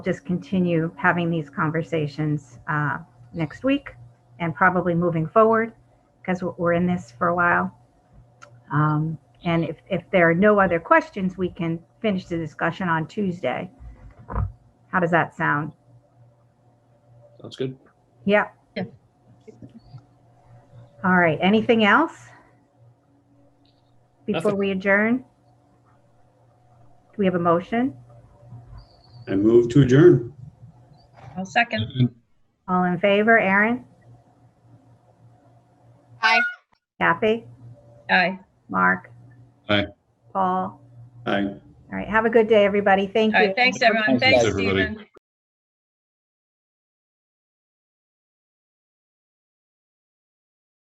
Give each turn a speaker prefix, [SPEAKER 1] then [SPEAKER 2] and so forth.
[SPEAKER 1] just continue having these conversations uh, next week and probably moving forward because we're in this for a while. Um, and if, if there are no other questions, we can finish the discussion on Tuesday. How does that sound?
[SPEAKER 2] Sounds good.
[SPEAKER 1] Yep.
[SPEAKER 3] Yeah.
[SPEAKER 1] All right. Anything else? Before
[SPEAKER 2] Nothing.
[SPEAKER 1] we adjourn? Do we have a motion?
[SPEAKER 2] I move to adjourn.
[SPEAKER 3] I'll second.
[SPEAKER 1] All in favor, Aaron?
[SPEAKER 4] Aye.
[SPEAKER 1] Kathy?
[SPEAKER 3] Aye.
[SPEAKER 1] Mark?
[SPEAKER 2] Aye.
[SPEAKER 1] Paul?
[SPEAKER 2] Aye.
[SPEAKER 1] All right. Have a good day, everybody. Thank
[SPEAKER 3] All
[SPEAKER 1] you.
[SPEAKER 3] right, thanks, everyone.
[SPEAKER 2] Thanks,
[SPEAKER 3] Thanks,
[SPEAKER 2] everybody.
[SPEAKER 3] Stephen.